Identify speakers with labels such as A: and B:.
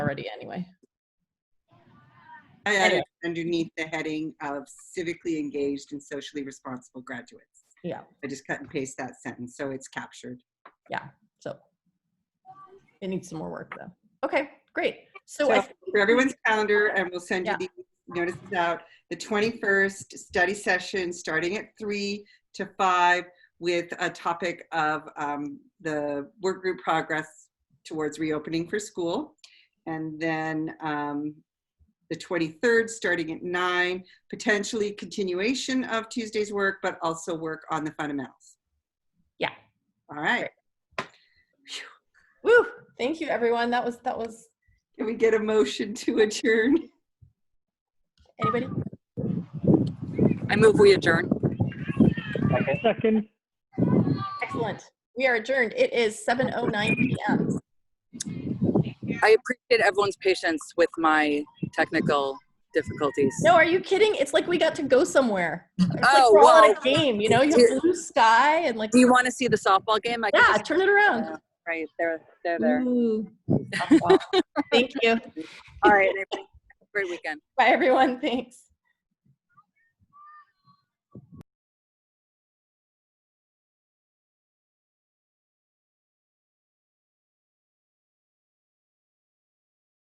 A: already anyway.
B: I added underneath the heading of civically engaged and socially responsible graduates.
A: Yeah.
B: I just cut and paste that sentence, so it's captured.
A: So it needs some more work though. Okay, great. So
B: So
A: I, uh,
B: for everyone's calendar, and we'll send you
A: Yeah.
B: the notices out, the 21st study session, starting at three to five with a topic of um, the work group progress towards reopening for school. And then um, the 23rd, starting at nine, potentially continuation of Tuesday's work, but also work on the fundamentals.
A: Yeah.
B: All right.
A: woo, thank you everyone. That was, that was,
B: Can we get a motion to adjourn?
A: anybody?
C: I move we adjourn.
D: Second,
A: Excellent. We are adjourned. It is 7:09 PM.
C: I appreciate everyone's patience with my technical difficulties.
A: No, are you kidding? It's like we got to go somewhere. It's like
C: Oh,
A: we're all in a
C: well.
A: game, you know, you have blue sky and like,
C: Do you want to see the softball game? I can
A: yeah,
C: just- uh,
A: turn it around.
C: Right, they're, they're there.
A: Ooh.
C: Oh,
A: Thank you. Mm-hmm.
C: All right. everybody, have a Great weekend.
A: Bye everyone. Thanks.